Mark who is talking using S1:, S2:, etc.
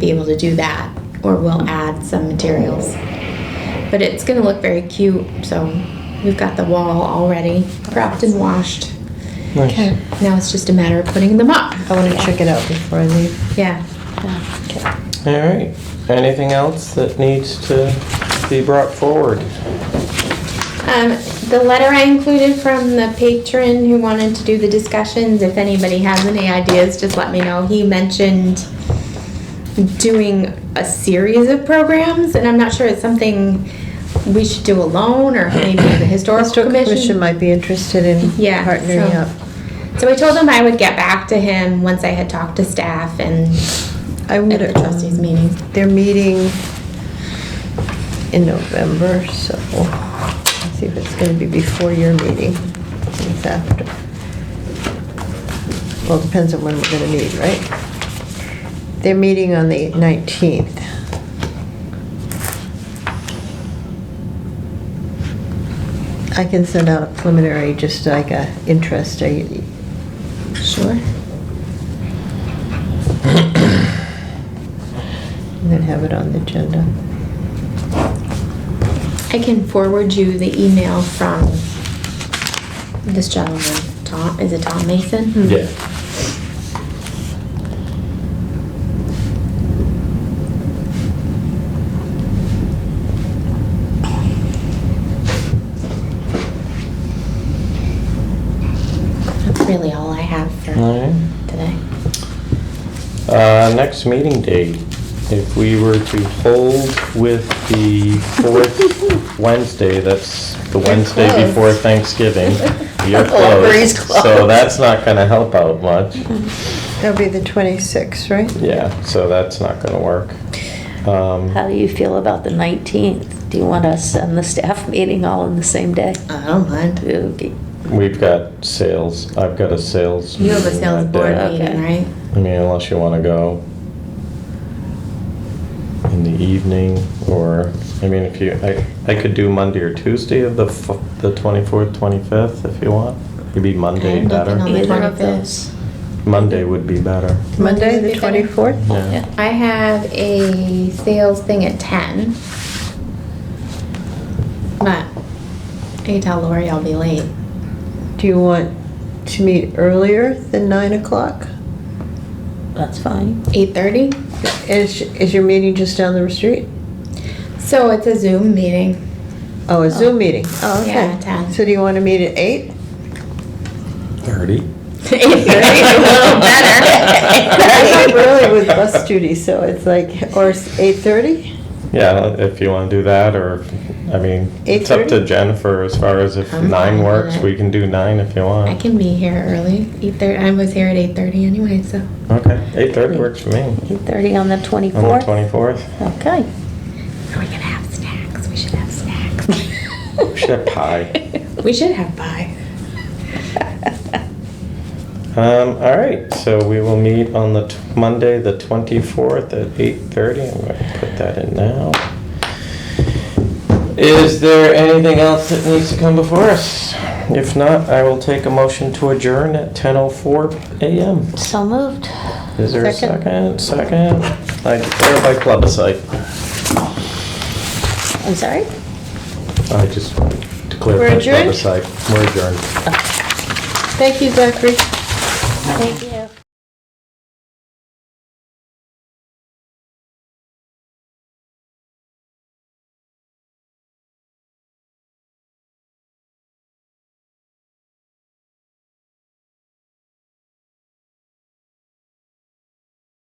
S1: be able to do that, or we'll add some materials. But it's gonna look very cute, so we've got the wall already prepped and washed.
S2: Okay.
S1: Now it's just a matter of putting them up.
S2: I want to check it out before I leave.
S1: Yeah.
S3: All right. Anything else that needs to be brought forward?
S1: Um, the letter I included from the patron who wanted to do the discussions, if anybody has any ideas, just let me know. He mentioned doing a series of programs, and I'm not sure it's something we should do alone, or maybe the historical
S2: Historical Commission
S1: commission.
S2: might be interested in
S1: Yeah,
S2: partnering
S1: so-
S2: up.
S1: So I told him I would get back to him once I had talked to staff and
S2: I
S1: at
S2: would,
S1: the trustees
S2: um,
S1: meeting.
S2: they're meeting in November, so let's see if it's going to be before your meeting. if It's after. Well, it depends on when we're going to meet, right? They're meeting on the 19th. I can send out a preliminary, just like a interest, I-
S1: Sure.
S2: and then have it on the agenda.
S1: I can forward you the email from this gentleman, Tom, is it Tom Mason?
S4: Yeah.
S1: That's really all I have for
S3: All right.
S1: today.
S3: Uh, next meeting date, if we were to hold with the fourth Wednesday, that's the Wednesday
S2: close.
S3: before Thanksgiving. You're
S2: Library's
S3: closed, so
S2: closed.
S3: that's not gonna help out much.
S2: That'll be the 26th, right?
S3: Yeah, so that's not gonna work. Um,
S5: How do you feel about the 19th? Do you want us and the staff meeting all in the same day?
S1: I don't mind.
S5: Okay.
S3: We've got sales, I've got a sales.
S1: You have a
S3: meeting
S1: sales
S3: that
S1: board
S3: day.
S5: Okay.
S1: meeting, right?
S3: I mean, unless you wanna go in the evening, or, I mean, if you, I, I could do Monday or Tuesday of the, f- the twenty-fourth, twenty-fifth, if you want. Maybe
S1: I
S3: Monday
S1: have nothing on
S3: better.
S1: the
S5: Either
S1: 25th.
S5: of those.
S3: Monday would be better.
S2: Monday,
S1: Monday
S2: the
S1: would be better.
S2: 24th?
S3: Yeah.
S1: I have a sales thing at ten. But I can tell Lori I'll be late.
S2: Do you want to meet earlier than 9 o'clock?
S5: That's fine.
S1: Eight thirty?
S2: Is, is your meeting just down the street?
S1: So it's a Zoom meeting.
S2: Oh, a Zoom meeting? Oh, okay.
S1: Yeah, 10.
S2: So do you want to meet at 8?
S3: Thirty?
S1: Eight thirty, a little
S2: I
S1: better.
S2: am early with bus duty, so it's like, or s- 8:30?
S3: Yeah, if you wanna do that, or, I mean, it's up
S2: 8:30?
S3: to Jennifer as far as if
S1: I'm fine
S3: nine
S1: with
S3: works,
S1: it.
S3: we can do nine if you want.
S1: I can be here early. Eight thirty, I was here at eight thirty anyway, so.
S3: Okay, eight-thirty works for me,
S5: 8:30 on the
S3: on the
S5: 24th?
S3: twenty-fourth.
S5: Okay.
S1: Are we gonna have snacks? We should have snacks.
S3: We should have pie.
S1: We should have pie.
S3: Um, all right, so we will meet on the t- Monday, the twenty-fourth at eight-thirty. I'm gonna put that in now. Is there anything else that needs to come before us? If not, I will take a motion to adjourn at ten oh four AM.
S5: So moved.
S3: Is there a second?
S2: Second.
S3: Second? I declare by plebiscite.
S5: I'm sorry?
S3: I just declare
S2: We're
S3: by
S2: adjourned?
S3: plebiscite. We're adjourned.
S2: Thank you, Zachary.
S5: Thank you.